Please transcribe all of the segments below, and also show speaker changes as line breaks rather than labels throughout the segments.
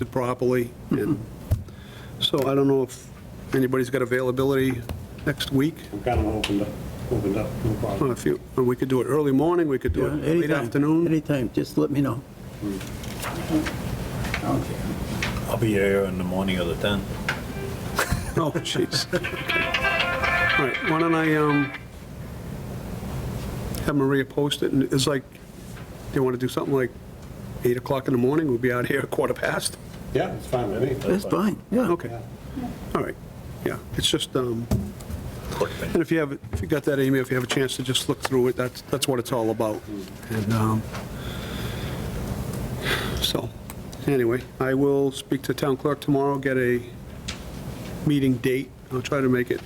it properly. and So I don't know if anybody's got availability next week.
I'm kind of opened up, opened up, no
Well,
problem.
If you, we could do it early morning, we could do it late
Anytime,
afternoon.
Anytime, just let me know.
I'll be here in the morning of the 10th.
Oh, jeez. All right, why don't I, um, have Maria post it, and it's like, they want to do something like 8 o'clock in the morning, we'll be out here at quarter past?
Yeah, it's fine with me.
That's fine, yeah.
Okay, all right, yeah, it's just, um,
Quick thing.
And if you have, if you got that email, if you have a chance to just look through it, that's, that's what it's all about. And, um, so, anyway, I will speak to town clerk tomorrow, get a meeting date. I'll try to make it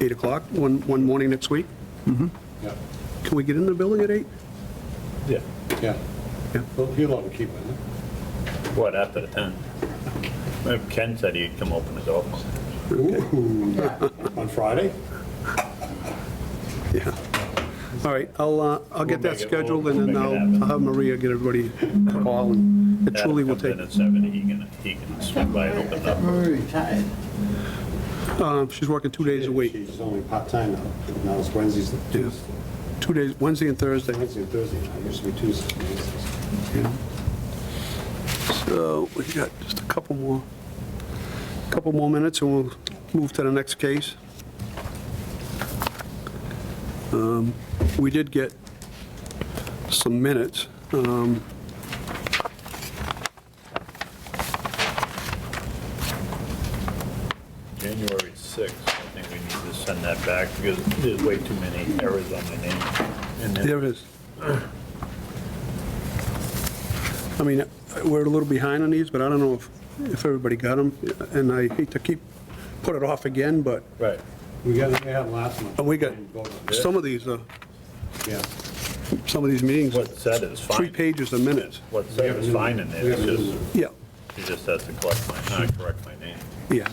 8 o'clock, one, one morning next week.
Yeah,
Can we get in the building at 8?
Yeah.
yeah.
Yeah.
Well, you'll have to keep it,
What, after the 10th? Uh, Ken said he'd come open his office.
huh? Ooh, on Friday?
Yeah. All right, I'll, uh, I'll get that
We'll make it-
scheduled,
we'll-
and then
we'll
I'll
make it happen.
I'll have Maria get everybody a call, and it
Dad
truly will
comes
take,
in at 7, he can, he can swing by and open up.
retired.
uh, she's working two days a week,
She's only part-time now. Now it's Wednesdays, and Tuesdays.
two days, Wednesday and Thursday.
Wednesday and Thursday. now. It used to be Tuesdays. and Wednesdays.
So we've got just a couple more, couple more minutes, and we'll move to the next case. Um, We did get some minutes. um,
January 6th, I think we need to send that back because there's way too many errors on the name. And then-
There it is. I mean, we're a little behind on these, but I don't know if, if everybody got them, and I hate to keep, put it off again, but
Right.
We got, we had last month.
Oh, we got- some of these, uh,
Yeah.
some of these meetings,
What said is fine.
three pages a minute.
What said is fine in there, it's just,
Yeah.
he just has to collect my, not correct my name.
Yeah.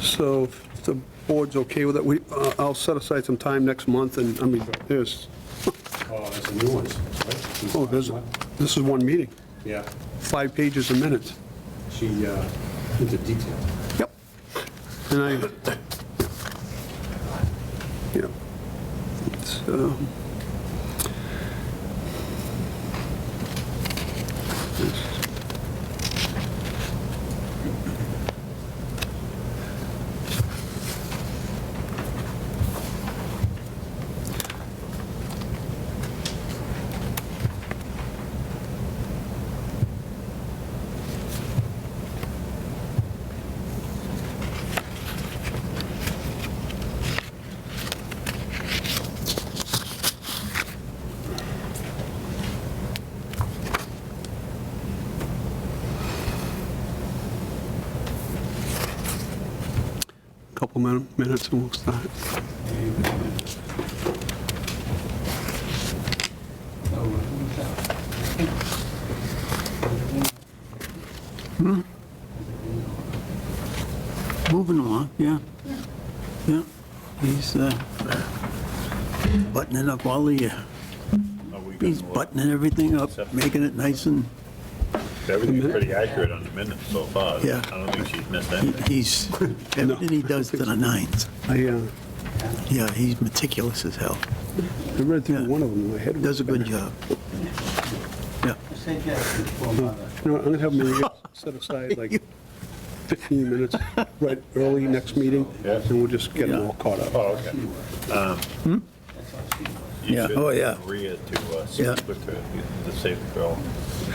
So if the board's okay with it, we, uh, I'll set aside some time next month, and, I mean, there's,
Oh, that's a new one. right?
oh, there's, this is one meeting,
Yeah,
five pages a minute.
she, uh, into detail.
Yep. And I, yeah. So. couple min- minutes and we'll start.
Moving along, yeah. Yeah, he's uh, buttoning up all the, uh,
Are we gonna
he's
look-
buttoning everything up, making it nice and
Everything's pretty accurate on the minutes so far.
Yeah.
I don't think she's missed
he-
anything.
he's, everything he does to the nines.
I, uh,
Yeah, he's meticulous as hell.
I read through
Yeah.
one of them, in my head. was-
Does a good job. Yeah,
You know, what, I'm gonna have Maria set aside like 15 minutes, right, early next meeting,
Yes.
and we'll just get them
Yeah.
all caught up.
Oh, okay. hmm? You
Yeah.
should
Oh, yeah.
Maria to, uh,
Yeah. Oh.
speak with her, the safe girl,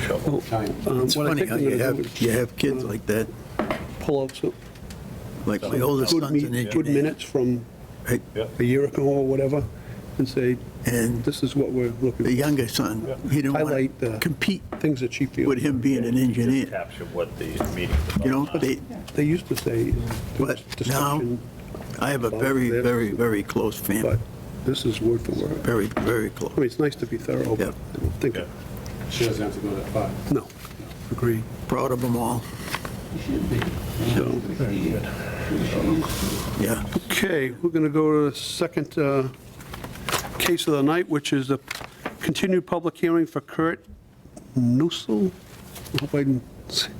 shovel.
Time.
Um,
it's
what I
funny
think
how
I'm
you
gonna do is
have, you have kids like that,
Pull out some
like my oldest
good
son's an
meet, good
engineer.
minutes from
right?
Yeah.
a year ago or whatever, and say,
And
this is what we're
the
looking,
younger son, he didn't want
Highlight uh,
to
the-
compete
things that she
with
feels.
him being an
Just
engineer,
capture what the meeting's about.
you know? They,
They used to say,
But
there's
now,
discussion,
I have a very, very, very close family,
but this is word for word.
very, very
I mean,
close.
it's nice to be thorough, but I don't think,
Yeah.
She doesn't have to go that far.
no, agreed.
Proud of them all,
So,
yeah.
Okay, we're going to go to the second uh, case of the night, which is the continued public hearing for Kurt Nussel. I hope I didn't say